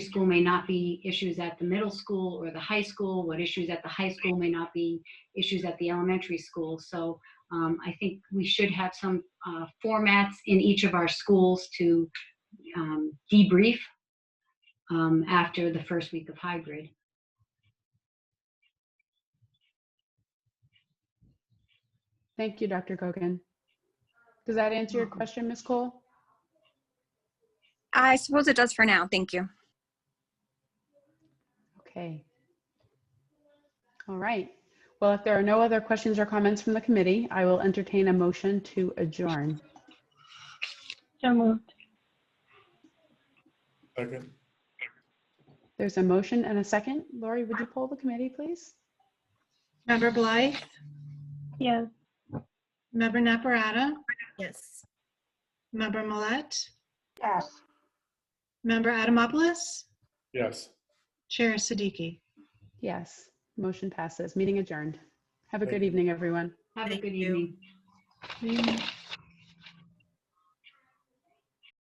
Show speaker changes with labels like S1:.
S1: school may not be issues at the middle school or the high school, what issues at the high school may not be issues at the elementary school. So um, I think we should have some uh, formats in each of our schools to um, debrief um, after the first week of hybrid.
S2: Thank you, Dr. Gogan. Does that answer your question, Ms. Cole?
S3: I suppose it does for now. Thank you.
S2: Okay. All right. Well, if there are no other questions or comments from the committee, I will entertain a motion to adjourn.
S4: So moved.
S5: Second.
S2: There's a motion and a second. Lori, would you poll the committee, please?
S6: Member Blythe?
S4: Yes.
S6: Member Naprata?
S7: Yes.
S6: Member Millet?
S8: Yes.
S6: Member Adamopoulos?
S5: Yes.
S6: Chair Siddiqui?
S2: Yes, motion passes. Meeting adjourned. Have a
S5: Thank
S2: good evening, everyone.
S1: Have a
S7: Thank
S1: good
S7: you.
S1: evening.
S6: Thank